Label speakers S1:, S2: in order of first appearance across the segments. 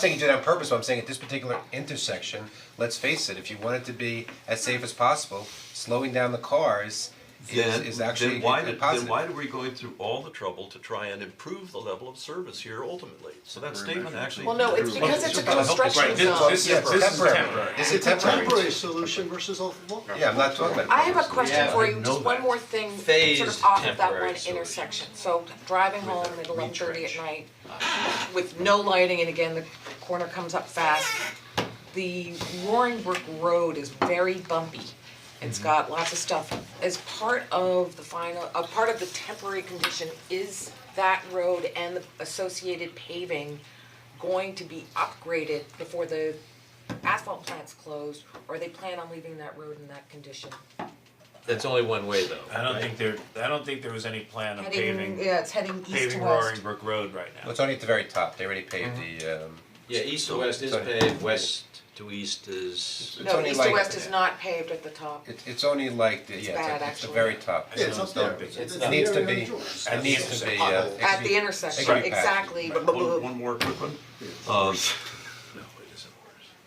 S1: saying you did it on purpose, but I'm saying at this particular intersection, let's face it, if you want it to be as safe as possible, slowing down the cars is
S2: then,
S1: is actually
S2: then
S1: a
S2: why
S1: a
S2: did,
S1: positive.
S2: then why are we going through all the trouble to try and improve the level of service here ultimately? So that statement actually.
S3: Well, no, it's because it's a construction
S4: Right, this-
S3: zone.
S4: this is- this is temporary.
S1: This is
S5: It's a
S1: temporary.
S5: temporary solution versus a long.
S1: Yeah, I'm not talking about.
S3: I have a question
S6: Yeah,
S3: for
S6: I
S3: you,
S6: know
S3: just one
S6: that.
S3: more thing, sort
S6: Phased
S3: of off of that
S6: temporary
S3: one intersection, so driving home at
S6: a
S3: eleven thirty at
S6: retrench.
S3: night with no lighting and again, the corner comes up fast. The Roaring Brook Road is very bumpy, it's
S6: Mm-hmm.
S3: got lots of stuff. As part of the final, a part of the temporary condition is that road and the associated paving going to be upgraded before the asphalt plant's closed, or they plan on leaving that road in that condition?
S6: That's only one way though.
S4: I don't think there, I don't think there was any plan of
S3: Heading,
S4: paving,
S3: yeah, it's heading east to
S4: paving
S3: west.
S4: Roaring Brook Road right now.
S1: Well, it's only at the very top, they already paved
S2: Mm-hmm.
S1: the um,
S6: Yeah, east to west is
S1: Sorry.
S6: paved, west to east is.
S1: it's only
S3: No, east to
S1: like-
S3: west is not paved at the top.
S1: it it's only like, the- yeah,
S3: bad,
S1: it's it's the
S3: actually.
S1: very top.
S5: Yeah, it's up there.
S4: It's
S5: the
S1: It needs to
S5: area
S1: be,
S5: of George.
S1: it needs to be, uh, it
S3: At
S1: should
S3: the
S1: be-
S3: intersection,
S1: Right.
S3: exactly.
S2: One, one more quick one. Um,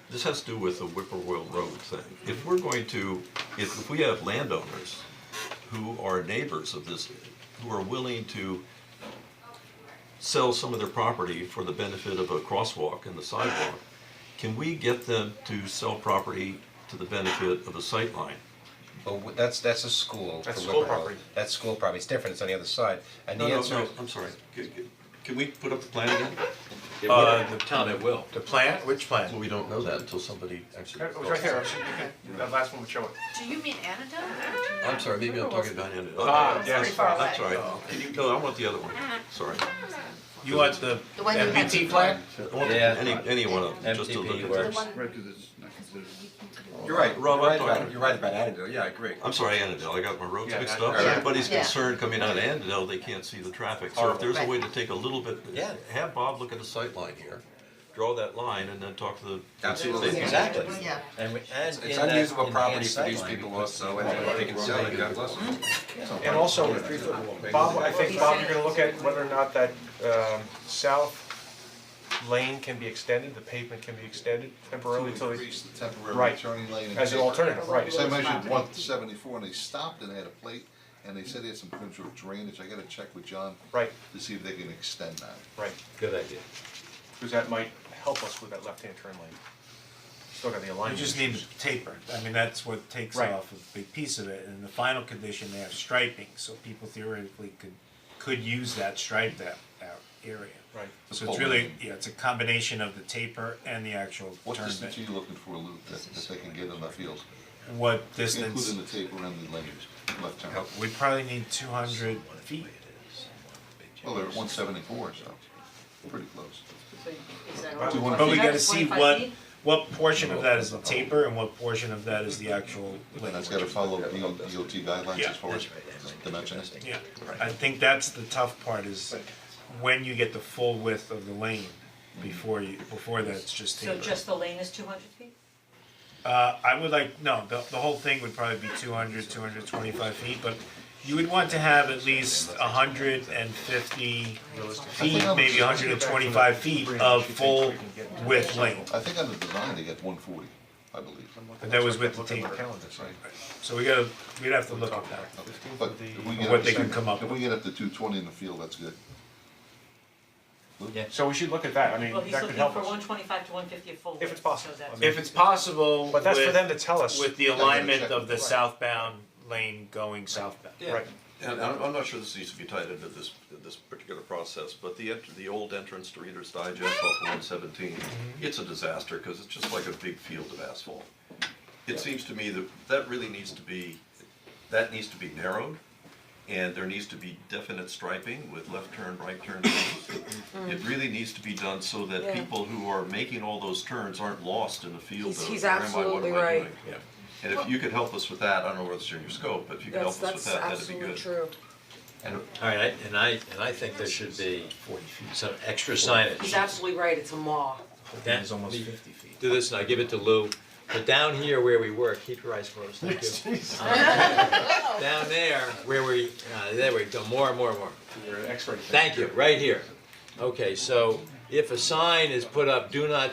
S2: This has to do with the Whippoorwill Road thing. If we're going to, if, if we have landowners who are neighbors of this, who are willing to sell some of their property for the benefit of a crosswalk and the sidewalk, can we get them to sell property to the benefit of a sightline?
S1: Well, w- that's that's a school for
S7: That's school
S1: Whipple Road.
S7: property.
S1: That's school property, it's different, it's on the other side, and the
S2: No, no,
S1: answer
S2: no,
S1: is,
S2: I'm sorry. Can- can- Can we put up the plan again?
S4: Uh, the-
S6: Town it will.
S7: The plan, which
S2: Well,
S7: plan?
S2: we don't know that until somebody actually.
S7: It was right there, that last one would show it.
S8: Do you mean antidote?
S2: I'm sorry, maybe I'm talking about Andy.
S7: Ah,
S2: Okay,
S7: yes.
S2: I'm sorry, I'm sorry. Can you, no, I want the other one, sorry.
S4: You want the
S8: The one you had
S4: MBT plan?
S2: I want the-
S6: Yeah.
S2: any, any one of them, just to
S6: MTP
S2: look at.
S6: works.
S7: You're right,
S2: Rob, I'm talking.
S7: you're right about Annandale, yeah, I agree.
S2: I'm sorry, Annandale, I got my roads
S7: Yeah,
S2: mixed
S7: yeah.
S2: up.
S7: Yeah.
S2: Everybody's
S8: Yeah.
S2: concerned coming out of Annandale, they can't see the traffic. So if there's a way to take a little bit,
S6: Yeah.
S2: have Bob look at the sight line here, draw that line and then talk to the.
S7: Absolutely.
S2: Yeah.
S6: Exactly.
S8: Yeah.
S6: And we, and in
S7: It's
S6: that
S7: unusable property
S6: enhanced
S7: for these
S6: sightline,
S7: people also, and if they can sell it, God bless
S9: Hmm?
S7: them.
S9: And also, Bob, I think, Bob, you're gonna look at whether or not that um south lane can be extended, the pavement can be extended temporarily
S10: To
S9: until they,
S10: increase the temporary
S9: Right.
S10: turning lane. and-
S9: as an alternative, right?
S10: They measured one seventy-four and they stopped and they had a plate and they said they had some potential drainage, I gotta check with John.
S9: Right.
S10: To see if they can extend that.
S9: Right,
S6: Good idea.
S9: because that might help us with that left-hand turn lane. Still got the
S4: You
S9: alignment.
S4: just need to taper, I mean, that's what takes
S9: Right.
S4: off a big piece of it, and the final condition, they have striping, so people theoretically could, could use that striped out, out area.
S9: Right.
S4: So it's really, yeah, it's a combination of the taper and the actual
S10: What
S4: turn
S10: distance are
S4: bit,
S10: you looking for, Lou, that that they can get on the field?
S4: what distance,
S10: Including the tape around the lanes, left turn.
S4: we probably need two hundred feet.
S10: Well, they're at one seventy-four, so pretty close.
S9: But we wanna
S4: But we
S8: Yeah,
S4: gotta see
S8: 25
S4: what,
S8: feet.
S4: what portion of that is the taper and what portion of that is the actual
S10: And that's
S4: length.
S10: gotta follow D- DOT guidelines
S4: Yeah.
S10: as far as dimensions.
S4: Yeah, I think that's the tough part is when you get the full width of the lane before you, before that's just
S8: So
S4: taper.
S8: just the lane is two hundred feet?
S4: Uh, I would like, no, the, the whole thing would probably be 200, 225 feet, but you would want to have at least hundred and fifty feet, maybe hundred and twenty-five feet of full width lane.
S10: I think on the design, they get one forty, I believe.
S4: But that was with the
S9: Look at my
S4: taper,
S9: calendar,
S10: That's right.
S4: so we gotta, we'd have to look at that.
S10: But if we get
S4: What
S10: up
S4: they
S10: to-
S4: can come up
S10: If we get up to two twenty in the field, that's good.
S9: So we should look at that, I mean, that could help us.
S8: twenty-five to one fifty a full
S9: If it's possible. I mean,
S4: If it's possible
S9: But that's for
S4: with-
S9: them to tell us.
S4: with the alignment of the southbound lane going southbound.
S9: Right.
S2: And I'm, I'm not sure this needs to be tied into this, this particular process, but the, ent- the old entrance to Reader's Digest off of one seventeen,
S3: Mm-hmm.
S2: it's a disaster, cause it's just like a big field of asphalt. It seems to me that that really needs to be, that needs to be narrowed, and there needs to be definite striping with left turn, right turn lanes. It really needs to be done so that
S3: Mm-hmm. Yeah.
S2: people who are making all those turns aren't lost in the field of,
S3: He's- he's
S2: where am I, what am I doing?
S3: absolutely right.
S2: Yeah. And if you could help us with that, I don't know whether it's in your scope, but if you could help
S3: That's,
S2: us with
S3: that's
S2: that, that'd be good.
S3: absolutely true.
S2: And
S6: Alright, I- and I, and I think there should be some extra
S3: He's
S6: signage.
S3: absolutely right, it's a maw.
S6: That- Do this and I give it to Lou, but down here where we work, keep your eyes closed, thank you. Um, Down there, where we, uh, there we go, more, more, more.
S9: You're an expert.
S6: Thank you, right here. Okay, so if a sign is put up, do not